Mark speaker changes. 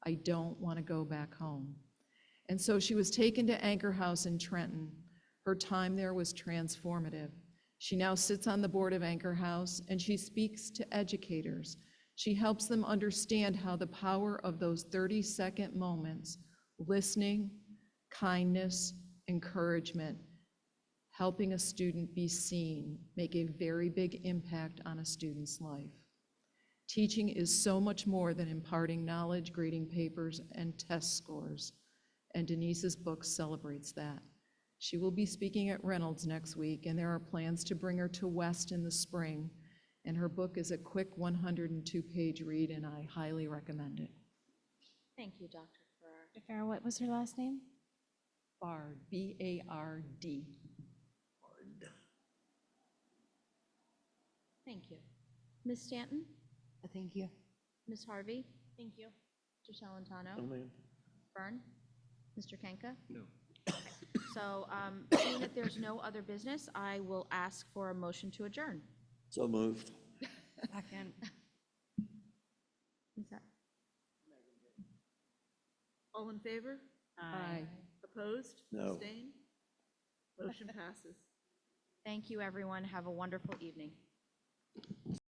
Speaker 1: I don't want to go back home. And so she was taken to Anchor House in Trenton. Her time there was transformative. She now sits on the board of Anchor House and she speaks to educators. She helps them understand how the power of those 30 second moments, listening, kindness, encouragement, helping a student be seen, make a very big impact on a student's life. Teaching is so much more than imparting knowledge, grading papers, and test scores. And Denise's book celebrates that. She will be speaking at Reynolds next week, and there are plans to bring her to West in the spring. And her book is a quick 102-page read, and I highly recommend it.
Speaker 2: Thank you, Dr. Farrar.
Speaker 3: Farah, what was her last name?
Speaker 1: Bard, B-A-R-D.
Speaker 2: Thank you. Ms. Stanton?
Speaker 4: Thank you.
Speaker 2: Ms. Harvey? Thank you. Mr. Salantano? Byrne? Mr. Kenka?
Speaker 5: No.
Speaker 2: So um, seeing that there's no other business, I will ask for a motion to adjourn.
Speaker 5: So moved.
Speaker 4: Second.
Speaker 2: Is that-
Speaker 6: All in favor?
Speaker 1: Aye.
Speaker 6: Opposed?
Speaker 5: No.
Speaker 6: Abstain? Motion passes.
Speaker 2: Thank you, everyone. Have a wonderful evening.